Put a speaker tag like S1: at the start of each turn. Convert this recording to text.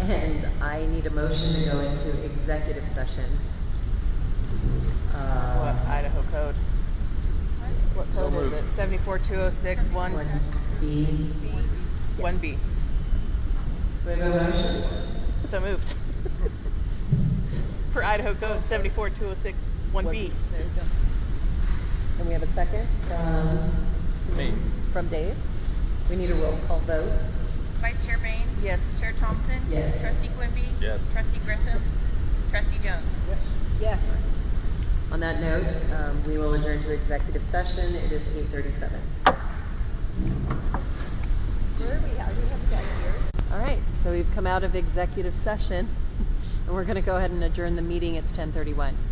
S1: And I need a motion to go into executive session.
S2: What
S1: Uh,
S2: Idaho code? What
S3: So
S2: code is
S3: moved.
S2: it? Seventy-four, two oh six, one,
S1: One B.
S2: one B.
S1: So we have a motion?
S2: So moved. Per Idaho code, seventy-four, two oh six, one B.
S1: There you go. And we have a second from,
S3: Me.
S1: from Dave. We need a roll call vote.
S4: Vice Chair Bain?
S2: Yes.
S4: Chair Thompson?
S1: Yes.
S4: Trustee Quimby?
S3: Yes.
S4: Trustee Grissom? Trustee Jones?
S2: Yes.
S1: On that note, um, we will adjourn to executive session. It is eight thirty-seven. All right, so we've come out of executive session, and we're going to go ahead and adjourn the meeting. It's ten thirty-one.